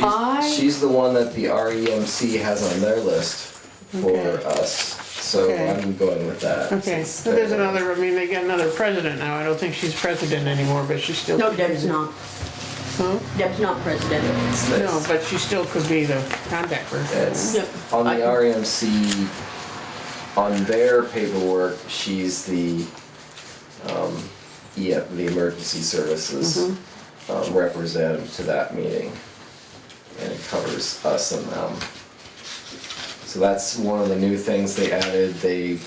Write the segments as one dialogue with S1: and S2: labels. S1: I-
S2: She's, she's the one that the REMC has on their list for
S1: Okay.
S2: us, so
S1: Okay.
S2: I'm going with that.
S1: Okay,
S2: since
S1: so there's
S2: they're-
S1: another, I mean, they got another president now. I don't think she's president anymore, but she still.
S3: No,
S1: could be
S3: Deb's
S1: the-
S3: not. Deb's not president.
S2: it's-
S1: No, but she still could be the contact person.
S2: It's,
S3: Yep.
S2: on the
S3: I-
S2: REMC, on their paperwork, she's the, um, yeah, the emergency services
S1: Mm-hmm.
S2: um, representative to that meeting. And it covers us and them. So that's one of the new things they added, they,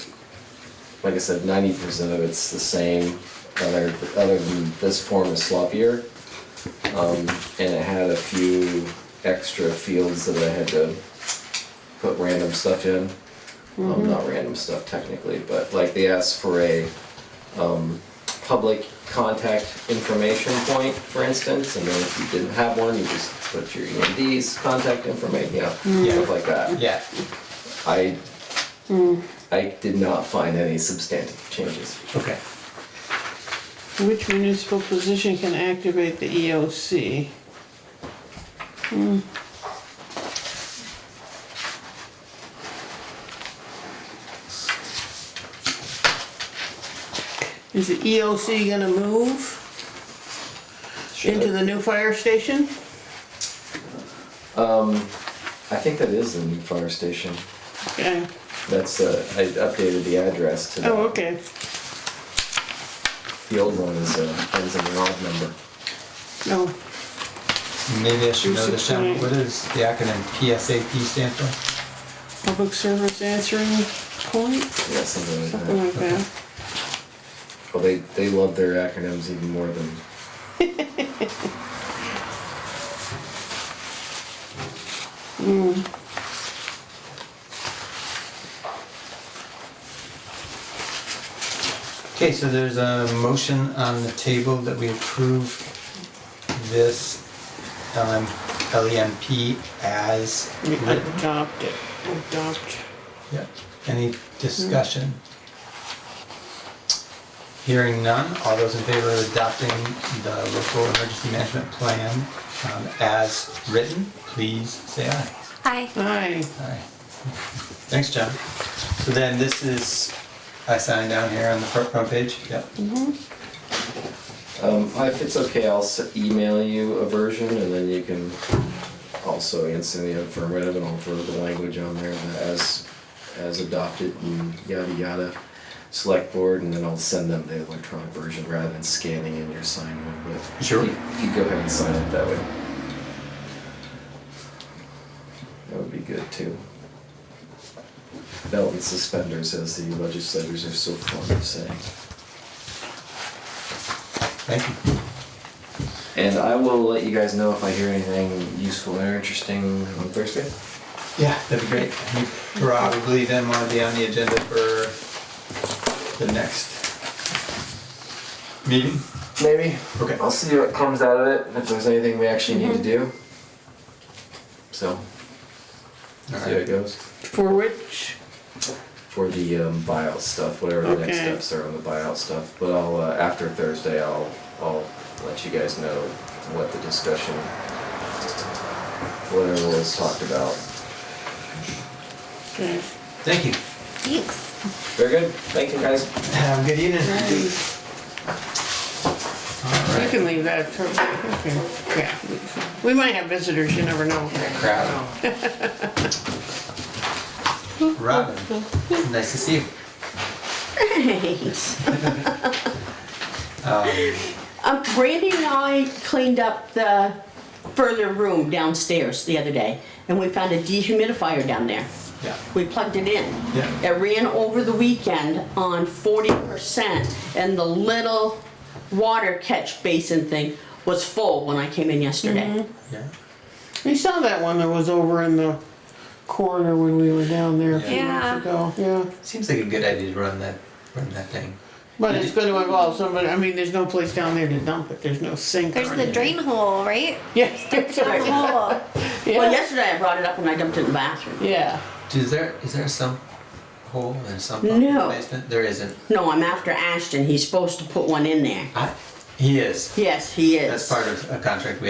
S2: like I said, ninety percent of it's the same, other, other than this form is sloppier. Um, and it had a few extra fields that I had to put random stuff in. Um, not random stuff technically, but like they asked for a um, public contact information point, for instance, and then if you didn't have one, you just put your EMD's contact information, you know, stuff like that.
S4: Yeah.
S2: I
S1: Hmm.
S2: I did not find any substantive changes.
S4: Okay.
S1: Which municipal position can activate the EOC? Hmm. Is the EOC gonna move into the new fire station?
S2: I think that is the new fire station.
S1: Yeah,
S2: That's uh, I updated the address to the,
S1: oh, okay,
S2: the old one is uh, ends in an odd number.
S1: no,
S4: Maybe I should know
S1: Two
S4: this down. What does the acronym PSAP stand for?
S1: public service answering point,
S2: Yeah, something like that.
S1: something like that.
S2: Well, they, they love their acronyms even more than.
S4: Okay, so there's a motion on the table that we approve this um, LM, LEMP as
S1: We
S4: written.
S1: Adopt it, adopt.
S4: Yep. Any discussion? Hearing none, all those in favor of adopting the local emergency management plan um, as written, please say aye.
S5: Hi.
S1: Aye,
S4: Aye. Thanks, John. So then this is, I sign down here on the front, front page, yep.
S2: Um, if it's okay, I'll s- email you a version and then you can also answer the affirmative and I'll throw the language on there that as, as adopted and yada yada. Select board and then I'll send them the electronic version rather than scanning in your sign one, but.
S4: Sure.
S2: You you go ahead and sign it that way. That would be good too. Belt and suspenders, as the legislators are so fond of saying.
S4: Thank you.
S2: And I will let you guys know if I hear anything useful or interesting on Thursday.
S4: Yeah, that'd be great. You probably then wanna be on the agenda for the next meeting?
S2: Maybe.
S4: Okay.
S2: I'll see what comes out of it and if there's anything we actually need to do. So, see how it
S4: Alright.
S2: goes.
S1: for which,
S2: For the um, buyout stuff, whatever the next
S1: Okay.
S2: steps are on the buyout stuff. But I'll uh, after Thursday, I'll I'll let you guys know what the discussion, whatever was talked about.
S1: okay.
S4: Thank you.
S5: Thanks.
S2: Very good. Thank you guys.
S4: Have a good evening.
S1: You can leave that for, okay, yeah. We might have visitors, you never know.
S4: Crowd. Robin, nice to see you.
S3: Thanks.
S4: Um,
S3: Um, Brandy and I cleaned up the further room downstairs the other day, and we found a dehumidifier down there.
S4: Yeah.
S3: We plugged it in.
S4: Yeah.
S3: It ran over the weekend on forty percent, and the little water catch basin thing was full when I came in yesterday.
S2: Mm-hmm.
S4: Yeah.
S1: We saw that one that was over in the corner when we were down there a few
S5: Yeah.
S1: months ago, yeah.
S4: Seems like a good idea to run that, run that thing.
S1: But it's gonna involve somebody, I mean, there's no place down there to dump it, there's no sink
S5: There's
S1: or
S5: the
S1: anything.
S5: drain hole, right?
S1: Yes, there's a
S5: There's a hole.
S3: Well,
S1: yeah,
S3: yesterday I brought it up and I dumped it in the bathroom.
S1: yeah.
S4: Is there, is there some hole and some pump in the
S3: No.
S4: basement? There isn't.
S3: No, I'm after Ashton. He's supposed to put one in there.
S4: I, he is.
S3: Yes, he is.
S4: That's part of a contract we